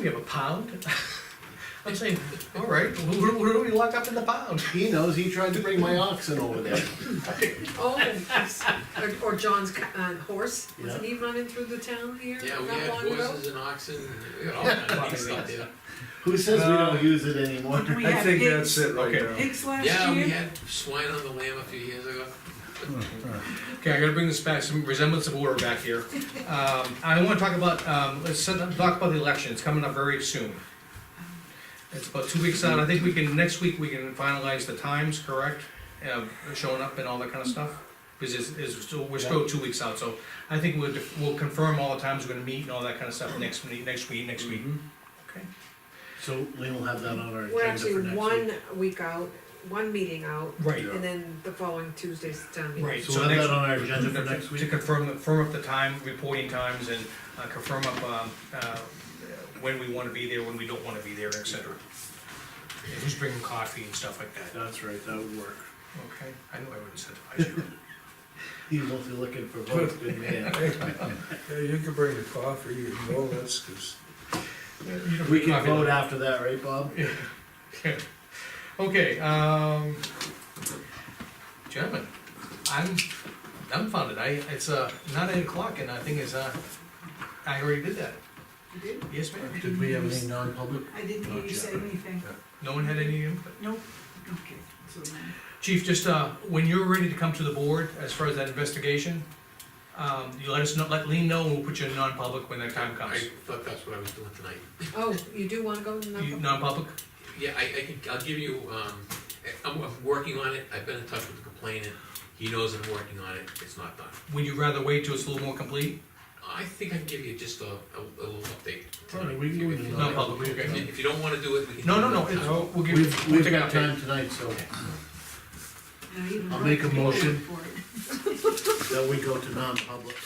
We have a pound? I'm saying, all right, where, where do we lock up in the pound? He knows, he tried to bring my oxen over there. Oh, or- or John's ca- uh, horse, wasn't he running through the town here Yeah, we not had long ago? horses and oxen, we had all kinds of stuff there. Who says we Uh, don't use it anymore? We I had think pigs, that's it right Okay. now. pigs last Yeah, we year. had swine on the lamb a few years ago. Okay, I gotta bring this back, some resemblance of order back here. Um, I wanna talk about, um, let's set up- talk about the election, it's coming up very soon. It's about two weeks out, I think we can, next week, we can finalize the times, correct? Uh, showing up and all that kinda stuff, because it's, it's, still- we're still two weeks out, so I think we'll, def- we'll confirm all the times we're gonna meet and all that kinda stuff next, week- next week, next week. Okay. So we will have that on our We're agenda for actually next one week out, one meeting out, Right, and then the following Tuesday's town meeting. right, week. so So we'll have next, that on our agenda for To- next To week? confirm, confirm up the time, reporting times, and uh, confirm up, um, uh, when we wanna be there, when we don't wanna be there, et cetera. And Who's bringing coffee and stuff like that, That's right, that would work. okay? I know I would incentivize you. He won't be looking for votes, good man. Yeah, you can bring the coffee and donuts, 'cause You don't We need can coffee. vote after that, right, Bob? Okay, um, gentlemen, I'm dumbfounded, I, it's, uh, not eight o'clock, and I think it's, uh, I already did that, You did? yes, ma'am? Did we have any non-public? I didn't hear you say anything. No one had any input? Nope. Okay. So then- Chief, just, uh, when you're ready to come to the board as far as that investigation, um, you let us know, let Lean know, and we'll put you in non-public when that time I comes. thought that's what I was doing tonight. Oh, you do wanna go to Do you- Norfolk? Non-public? Yeah, I, I can, I'll give you, um, I'm, I'm working on it, I've been in touch with the complainant, he knows I'm working on it, it's not done. Would you rather wait till it's a little more complete? I think I can give you just a, a, a little update. Tony, we can do it in No, public, If you- If you don't wanna do it, we can. No, do no, it no, another it's, time. we'll give, We've, we'll we've take an got update. time tonight, so now even I'll wrote make a the motion. paperwork for it. that we go to non-public.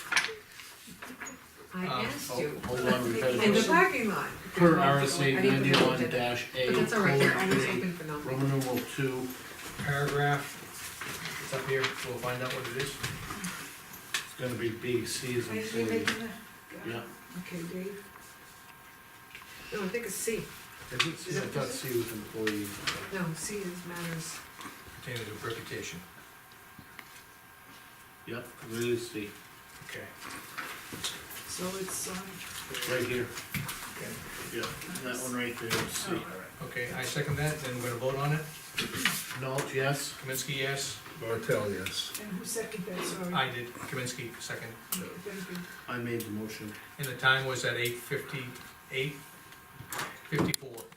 I Um, asked Oh, you, Hold on, we've had a in the question. parking lot. Per I RSA didn't put it on ninety-one today. dash A, But that's all right, they're always colon, open for A, non Roman numeral two, Paragraph, it's up here, we'll find out what it is. it's gonna be B, C is I in didn't hear C. making that. Yeah. Okay, Dave. No, I think it's C, I think C- I thought C was employee. no, C is matters, Pertaining to reputation. Yep, it is C, Okay. So it's, um, right here. Okay. Yeah, that one right there is C. Okay, I second that, then we're gonna vote on it. Nault, yes? Kaminsky, yes? Bartel, yes. and who seconded that, sorry? I did, Kaminsky, second. Okay, Thank you. I made the motion. And the time was at eight fifty-eight, fifty-four.